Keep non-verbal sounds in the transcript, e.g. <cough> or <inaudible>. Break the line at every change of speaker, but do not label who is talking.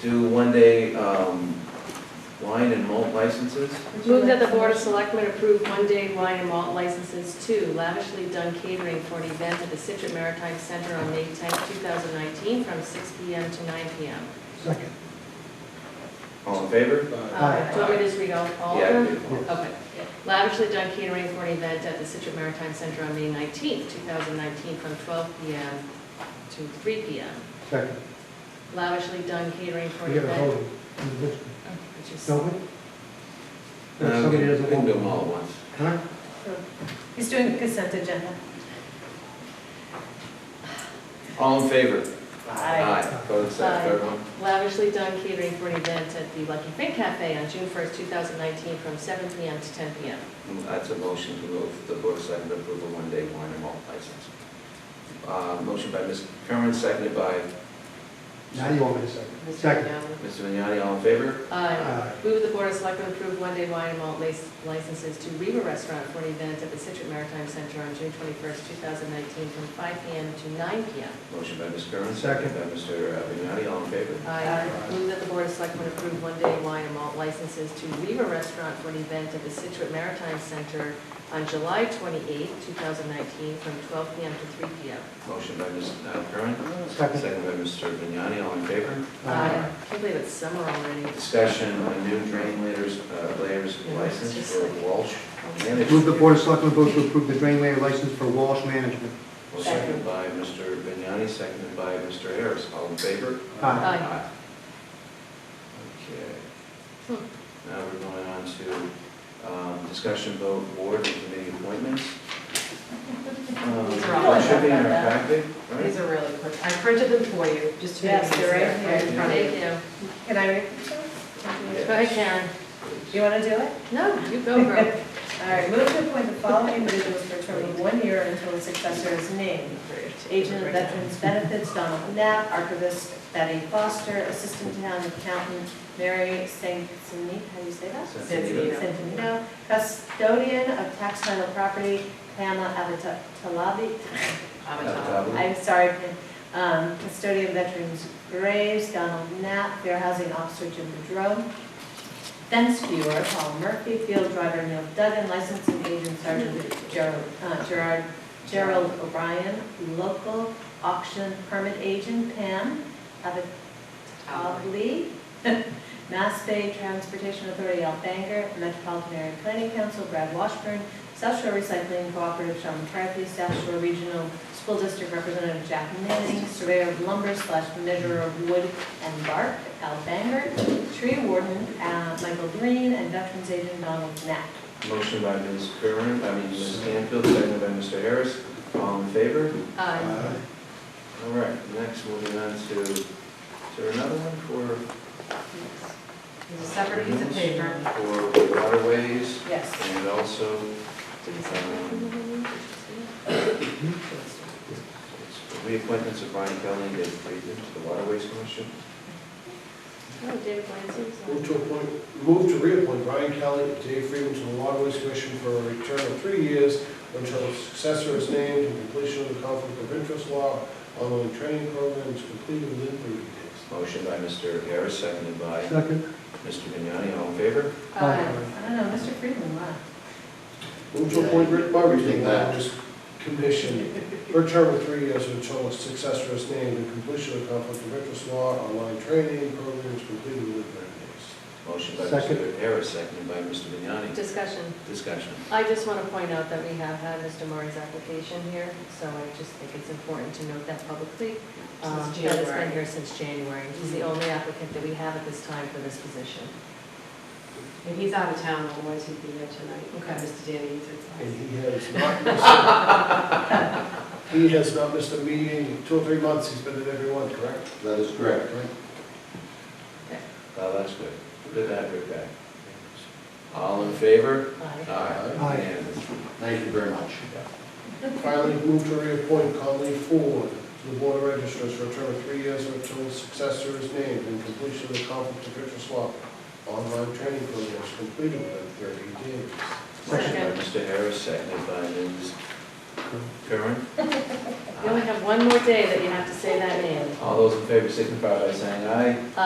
do one-day um, wine and malt licenses.
Move that the Board of Selectmen approve one-day wine and malt licenses to lavishly done catering for an event at the Citro Maritime Center on May 10, 2019, from 6 PM to 9 PM.
Second.
All in favor?
Uh, Do you want me to just read all all of
Yeah. Uh,
them? Okay. Lavishly done catering for an event at the Citro Maritime Center on May 19, 2019, from 12 PM to 3 PM.
Second.
Lavishly done catering for
We
an
got a
event.
vote on this,
Oh, I just-
don't we?
Uh,
If
We
somebody
can we
doesn't
can
want
do them all at once.
Huh?
He's doing consent agenda.
All in favor? Aye. Go to the
Aye.
second, third one.
Lavishly done catering for an event at the Lucky Fin Cafe on June 1st, 2019, from 7 PM to 10 PM.
Mm, That's a motion to move the board of selectmen to approve a one-day wine and malt license. Uh, Motion by Ms. Curran, seconded by
Now you want me to second? Second.
Mr. Vignani, all in favor?
Aye.
Aye.
Move the Board of Selectmen approve one-day wine and malt lic- licenses to Reba Restaurant for an event at the Situate Maritime Center on June 21st, 2019, from 5 PM to 9 PM.
Motion by Ms. Curran,
Second.
seconded by Mr. Vignani, all in favor?
Aye. Move that the Board of Selectmen approve one-day wine and malt licenses to Reba Restaurant for an event at the Situate Maritime Center on July 28th, 2019, from 12 PM to 3 PM.
Motion by Ms. Curran,
Second.
seconded by Mr. Vignani, all in favor?
Aye. Uh, Can't believe it's summer already.
Discussion on new drain layers, uh, layers license for Walsh
Move the
Management.
Board of Selectmen vote to approve the drain layer license for Walsh Management.
Motion by Mr. Vignani, seconded by Mr. Harris, all in favor?
Aye.
Aye.
Okay. Now we're going on to um, discussion vote board and committee appointments. Um,
These are all-
That should be in our packet, right?
These are really quick. I printed them for you, just to make it
Yes,
easier.
they're right here.
in front of
Thank
you.
you.
Can I read?
Yeah.
Go ahead, Karen.
Do you want to do it?
No, you go, girl. <laughs>
All right, move to appoint the following individuals for a term of one year until a successor is named. Agent of Veterans Benefits, Donald Knapp, archivist Betty Foster, assistant town accountant Mary Sansonito, how do you say that?
Santonino.
Santonino. custodian of tax title property Pamela Avatalabi.
Avatalabi.
I'm sorry, um, custodian of veterans graves, Donald Knapp, fair housing officer Jim Bedrome, fence viewer Paul Murphy, field driver Neil Duggan, licensing agent Sergeant Gerald- uh, Gerard, Gerald O'Brien, local auction permit agent Pam Abitalli, <laughs> Mass Bay Transportation Authority Al Banger, Metropolitan Area Planning Council Brad Washburn, South Shore Recycling Cooperative Sean McCarthy, South Shore Regional School District Representative Jack Manning, Surveyor of Lumber slash Measurer of Wood and Bark Al Banger, Tree Warden, uh, Michael Green, and Veterans Agent Donald Knapp.
Motion by Ms. Curran, I mean, Ms. Stanfield, seconded by Mr. Harris. All in favor?
Aye.
All right, next, moving on to, is there another one for?
There's a separate piece of paper.
For waterways
Yes.
and also, um,
Did you sign that one?
it's for reappointments of Brian Kelly and David Friedman to the Waterways Commission.
No, David Lansing's on.
Move to appoint, move to reappoint Brian Kelly and Dave Freeman to the Waterways Commission for a return of three years until a successor is named and completion of the conflict of interest law online training program is completed within thirty days.
Motion by Mr. Harris, seconded by
Second.
Mr. Vignani, all in favor?
Aye.
Uh, I don't know, Mr. Friedman left.
Move to appoint Rick Barbie to the Waterways Commission for a term of three years until a successor is named and completion of the conflict of interest law online training program is completed within thirty days.
Motion by Mr.
Second.
Harris, seconded by Mr. Vignani.
Discussion.
Discussion.
I just want to point out that we have had Mr. Murray's application here, so I just think it's important to note that publicly. um,
Since
That it's been
January.
here since January. He's the only applicant that we have at this time for this position.
And he's out of town, otherwise he'd be here tonight.
Okay.
Mr. Danny, he's at-
And he has not missed, <laughs> he has not missed a meeting, in two or three months, he's been at every one, correct?
That is correct.
Oh, that's good. Good to have you back. All in favor?
Aye.
Aye.
Aye.
Unanimous.
Thank you very much.
Finally, move to reappoint Conley Ford to the Board of Registers for a term of three years or until his successor is named and completion of the conflict of interest law. Online training program is completed within thirty days.
Motion by
Second.
Mr. Harris, seconded by Ms. Curran.
You only have one more day that you have to say that name.
All those in favor signify by saying aye.